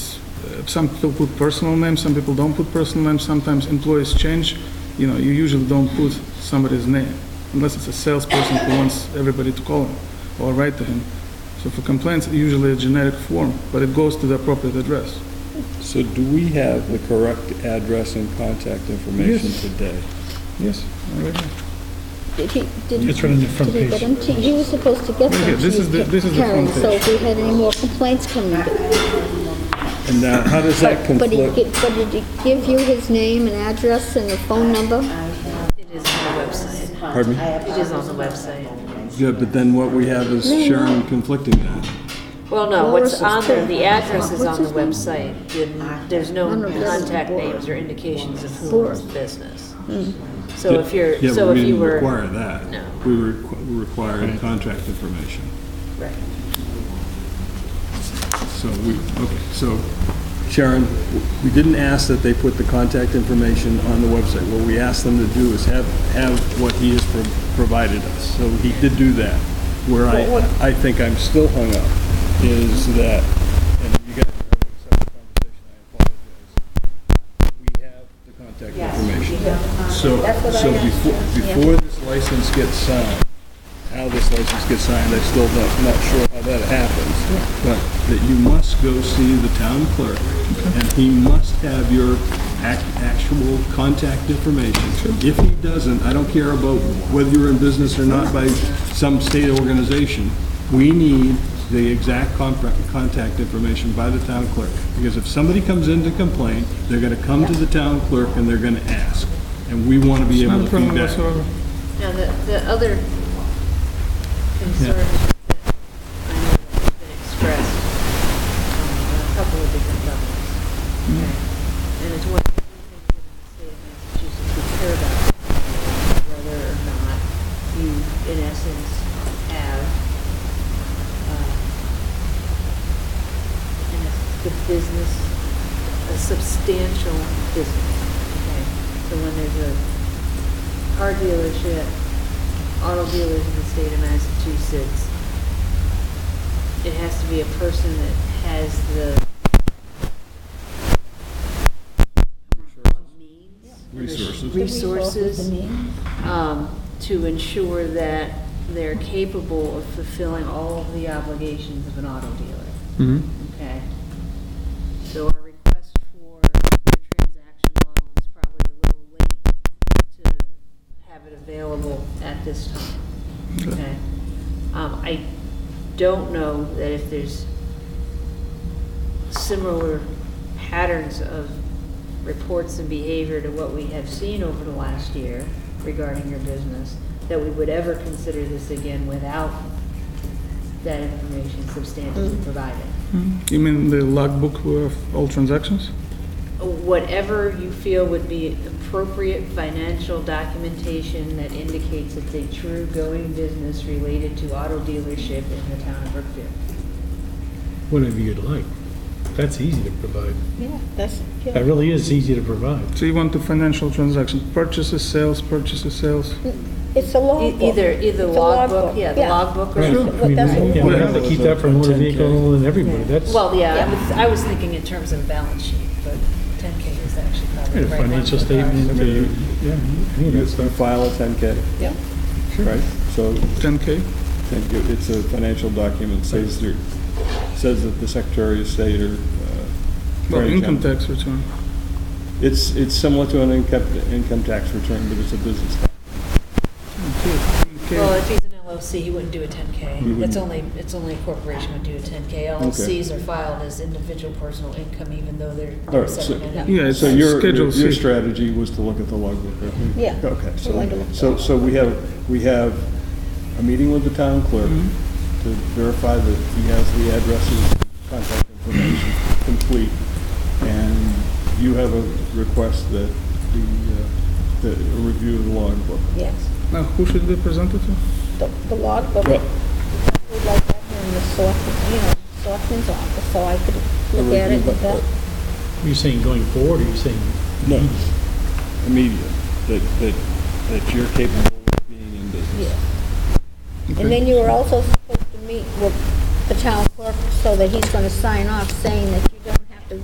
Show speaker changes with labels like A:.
A: uh, some people put personal names, some people don't put personal names, sometimes employees change, you know, you usually don't put somebody's name, unless it's a salesperson who wants everybody to call him or write to him. So for complaints, usually a generic form, but it goes to the appropriate address.
B: So do we have the correct address and contact information
A: Yes.
B: today?
A: Yes, all right.
C: Did he, did
D: It's right on the front
C: did he
D: page.
C: get them to, you were supposed to get
A: Right
C: them
A: here,
C: to
A: this is the- this is the
C: Karen,
A: front
C: so
A: page.
C: if we had any more complaints coming.
B: And now, how does that
C: But he,
B: conflict?
C: gi- but did he give you his name and address and the phone number?
E: It is on the website.
B: Pardon me?
E: It is on the website.
B: Good, but then what we have is Sharon conflicting that.
E: Well, no,
C: Lois
E: what's on
C: is
E: there,
C: too.
E: the address is
C: What's
E: on the
C: his name?
E: website. The- There's no
C: None of this is
E: contact
C: Board.
E: names or indications of whose business.
C: Hmm.
E: So if
B: Yeah,
E: you're,
B: but we
E: so if you
B: didn't
E: were.
B: Require that.
E: No.
B: We requ- required contract information.
E: Right.
B: So we, okay, so Sharon, we didn't ask that they put the contact information on the website. What we asked them to do is have, have what he has pro- provided us. So he did do that. Where I, I think I'm still hung up is that, and you guys are having a separate conversation, I apologize. We have the contact information. So, so before, before this license gets signed, how this license gets signed, I'm still not, not sure how that happens. But that you must go see the town clerk, and he must have your ac- actual contact information. If he doesn't, I don't care about whether you're in business or not by some state organization, we need the exact con- contact information by the town clerk. Because if somebody comes in to complain, they're gonna come to the town clerk and they're gonna ask. And we wanna be
A: Not
B: able
A: a
B: to
A: problem
B: feedback.
A: whatsoever.
E: Now, the, the other concern that I know has been expressed on a couple of different levels. okay, And it's what we think that the state of Massachusetts would care about, whether or not you, in essence, have, uh, in essence, the business, a substantial business. Okay, So when there's a car dealership, auto dealers in the state of Massachusetts, it has to be a person that has the
B: Resources.
E: resources um, to ensure that they're capable of fulfilling all of the obligations of an auto dealer. Okay. So our request for your transaction log is probably a little late to have it available at this time. Okay. Um, I don't know that if there's similar patterns of reports and behavior to what we have seen over the last year regarding your business, that we would ever consider this again without that information substantially provided.
A: You mean the logbook of all transactions?
E: whatever you feel would be appropriate financial documentation that indicates it's a true going business related to auto dealership in the town of Brookfield.
D: Whatever you'd like. That's easy to provide.
F: Yeah, that's,
D: That really is easy to provide.
A: So you want the financial transaction, purchases, sales, purchases, sales?
F: it's a
E: E-
F: logbook.
E: Either, either
F: It's a
E: logbook, yeah, the logbook
D: Right.
E: or,
D: I mean,
F: that's what-
D: yeah, we have to keep that for motor vehicle and everybody, that's
E: well, yeah, I was, I was thinking in terms of balance sheet, but 10K is actually probably
D: a
E: the right. one
D: financial
E: for cars.
D: statement, uh, yeah, any of
B: You
D: that
B: you
D: stuff.
B: file a 10K,
F: Yeah.
B: right? So
A: 10K?
B: thank you. it's a financial document, says there, says that the Secretary of State or. uh,
A: Well,
B: Attorney
A: income
B: General-
A: tax return.
B: It's, it's similar to an income, income tax return, but it's a business. tax.
E: Well,
A: Okay.
E: if he's an LLC, he wouldn't do a 10K. That's only, it's only a corporation would do a 10K. LLCs are filed as individual personal income, even though
B: All
E: they're
B: right, so-
E: separate entities.
A: Yeah, it's
B: So your, your
A: Schedule C.
B: your strategy was to look at the logbook, right?
F: Yeah.
B: Okay,
F: We wanted to look
B: so, so,
F: at
B: so we have, we have a meeting with the town clerk
F: Mm-hmm.
B: to verify that he has the addresses, contact information complete, and you have a request that the, uh, that a review of the logbook.
F: Yes,
A: Now, who should be presented to?
F: the, the logbook,
B: Right.
F: we'd like that in the selectman, you know, selectman's office, so I could
B: A
F: look at
B: review
F: it
B: of
F: with
B: the-
F: that.
D: Are you saying going forward, or are you saying,
B: No, immediate, that, that, that you're capable of being in business.
F: And then you were also supposed to meet with the town clerk so that he's gonna sign off saying that